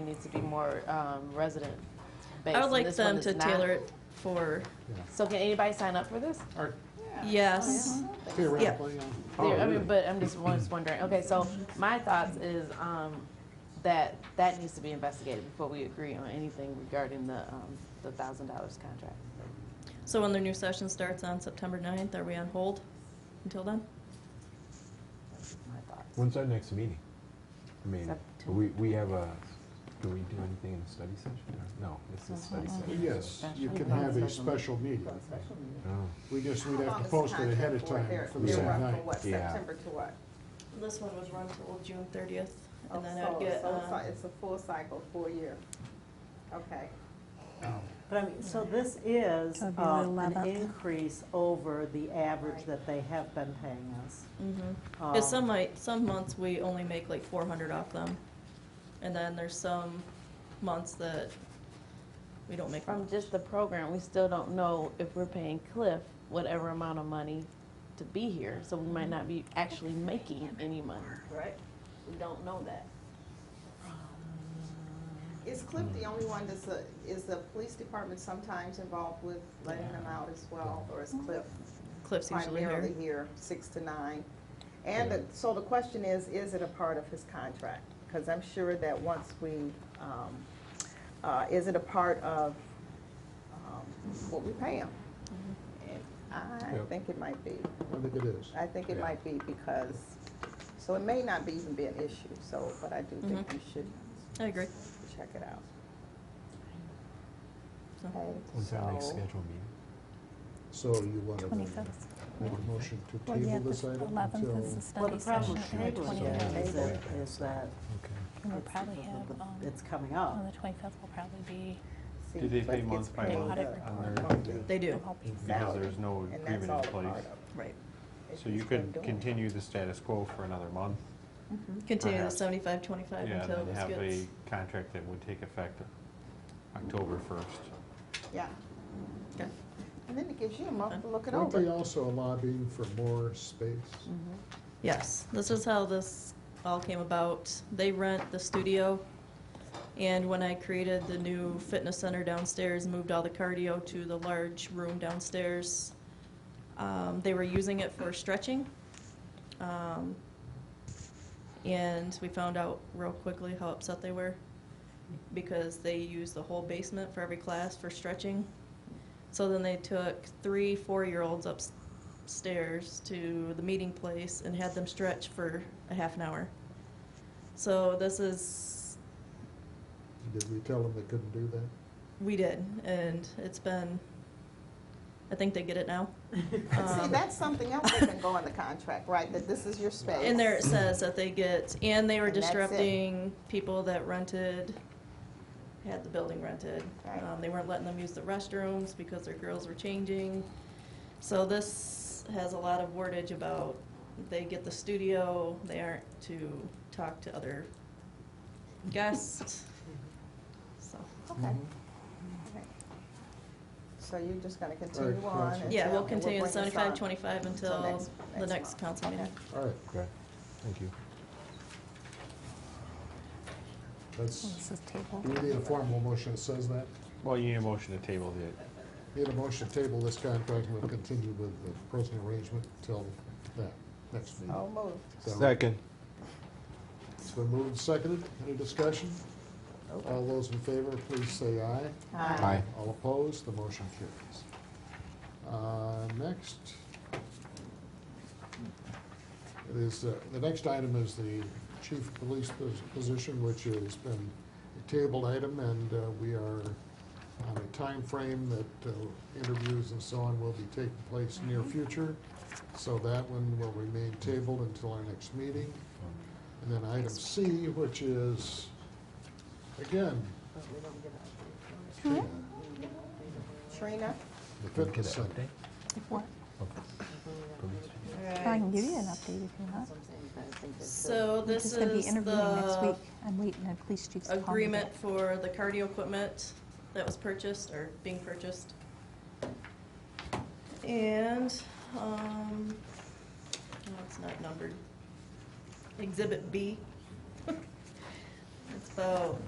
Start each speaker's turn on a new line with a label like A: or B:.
A: needs to be more um, resident based.
B: I would
A: and
B: like
A: this one
B: them
A: is
B: to
A: not.
B: tailor it for,
A: So can anybody sign up for this?
C: Or
B: yes.
C: theoretically. um, oh,
A: There- I
C: really?
A: mean, but I'm just, was wondering, okay, so my thoughts is, um, that, that needs to be investigated before we agree on anything regarding the, um, the thousand dollars contract.
B: So when their new session starts on September 9th, are we on hold until then?
A: That's My thoughts.
D: When's our next meeting? I mean,
A: September.
D: we, we have a, do we do anything in the study session? or- No, it's a study
A: Mm-hmm.
D: session.
C: Yes, you can have a special meeting.
E: Uh-huh.
D: Oh,
C: We just,
E: How
C: we'd have
E: long
C: to
E: is the
C: post it ahead of
E: contract for?
C: time
E: They're-
C: for the
E: they're
C: same
E: run
C: night.
E: From what,
D: Yeah.
E: September to what?
B: This one was run till June 30th,
E: Oh,
B: and then I'd
E: so-
B: get,
E: so it's
B: um,
E: like- It's a full cycle, four year. Okay.
F: But I mean, so this is
G: That'd be the
F: uh, an
G: 11th.
F: increase over the average that they have been paying us.
B: mhm.
F: Um,
B: 'Cause some might, some months we only make like 400 off them. And then there's some months that we don't make
A: From
B: much.
A: just the program, we still don't know if we're paying Cliff whatever amount of money to be here, so we might not be actually making any money.
E: Right.
A: We don't know that.
E: Is Cliff the only one that's, a- is the police department sometimes involved with letting them out as well? Or is Cliff
B: Cliff's usually here.
E: primarily here, six to nine? And the- so the question is, is it a part of his contract? Because I'm sure that once we, um, uh, is it a part of um, what we pay him?
B: Mm-hmm.
E: I
C: Yep.
E: think it might be.
C: I think it is.
E: I think it
D: Yeah.
E: might be because, so it may not be even be an issue, so, but I do think
B: Mm-hmm.
E: we should
B: I agree.
E: check it out.
B: So-
E: Okay,
D: When's our next
E: so-
D: scheduled meeting?
C: So you want to
G: Twenty-fifth.
C: make a motion to
G: Well,
C: table
G: yeah,
C: this
G: the
C: item
G: eleventh is
C: until
G: the
F: Well,
G: study
F: the problem
G: session,
F: with
G: and the
F: tabling it
G: twenty-fifth,
F: is that, is that
D: Okay.
G: we'll
F: it's-
G: probably have, um,
F: it's coming up.
G: well, the twenty-fifth will probably be,
E: see,
H: Do they
E: Cliff
H: pay
E: gets
H: month by
E: paid
H: month
G: Audit
H: on
E: a
H: their,
E: monthly
B: They do,
G: I'm hoping.
H: because
E: salary,
H: there's no
E: and that's
H: agreement
E: all
H: in
E: a part
H: place?
E: of it,
B: right.
E: if
H: So
E: he's
H: you
E: been
H: could
E: doing it.
H: continue the status quo for another month?
B: Continue the
H: Perhaps.
B: 75, 25
H: Yeah,
B: until
H: and then
B: this
H: have a
B: gets,
H: contract that would take effect October first.
E: Yeah,
B: okay.
E: and then it gives you a month to look it
C: Aren't they
E: over.
C: also lobbying for more space?
B: Mm-hmm. Yes, this is how this all came about. They rent the studio, and when I created the new fitness center downstairs, moved all the cardio to the large room downstairs, um, they were using it for stretching. Um, and we found out real quickly how upset they were because they used the whole basement for every class for stretching. So then they took three four year olds upstairs to the meeting place and had them stretch for a half an hour. So this is,
C: Did we tell them they couldn't do that?
B: we did, and it's been, I think they get it now.
E: And See,
B: Um,
E: that's something else that can go in the contract, right, that this is your space.
B: And there it says that they get, and they were
E: And that's it.
B: disrupting people that rented, had the building rented.
E: Right.
B: Um, they weren't letting them use the restrooms because their girls were changing. So this has a lot of wordage about they get the studio, they aren't to talk to other guests. So,
E: Okay.
D: Mm-hmm.
C: Mm-hmm.
E: Okay. So you're just gonna continue
C: Alright,
E: on?
C: Council.
B: yeah,
E: until-
B: we'll
E: and
B: continue at
E: bring this on.
B: seventy-five, twenty-five until
E: next-
B: the
E: next
B: next
E: month.
B: council meeting.
E: Okay.
C: All right,
D: Okay, thank you.
G: Well,
C: that's,
G: This is tabled.
C: do we need a formal motion that says that?
H: Well, you need a motion to table the,
C: Need a motion to table this contract, we'll continue with the present arrangement till that, next meeting.
E: So moved.
C: Is that right? It's been moved and seconded. Any discussion? All those in favor, please say aye.
E: Aye.
D: Aye.
C: All opposed, the motion carries. Uh, Next. It is, uh, the next item is the chief of police pos- position, which has been a tabled item, and uh, we are on a time frame that uh, interviews and so on will be taking place near future, so that one will remain tabled until our next meeting. And then item C, which is, again,
E: Trina?
C: the
D: Can we get
C: fitness
D: an
C: center.
D: update?
G: What? I can give you an update if you want.
B: So
G: I'm
B: this is
G: just
B: the.
G: gonna be interviewing next week. I'm waiting on police chiefs to call me back.
B: agreement for the cardio equipment that was purchased or being purchased. And, um, no, it's not numbered. Exhibit B. It's about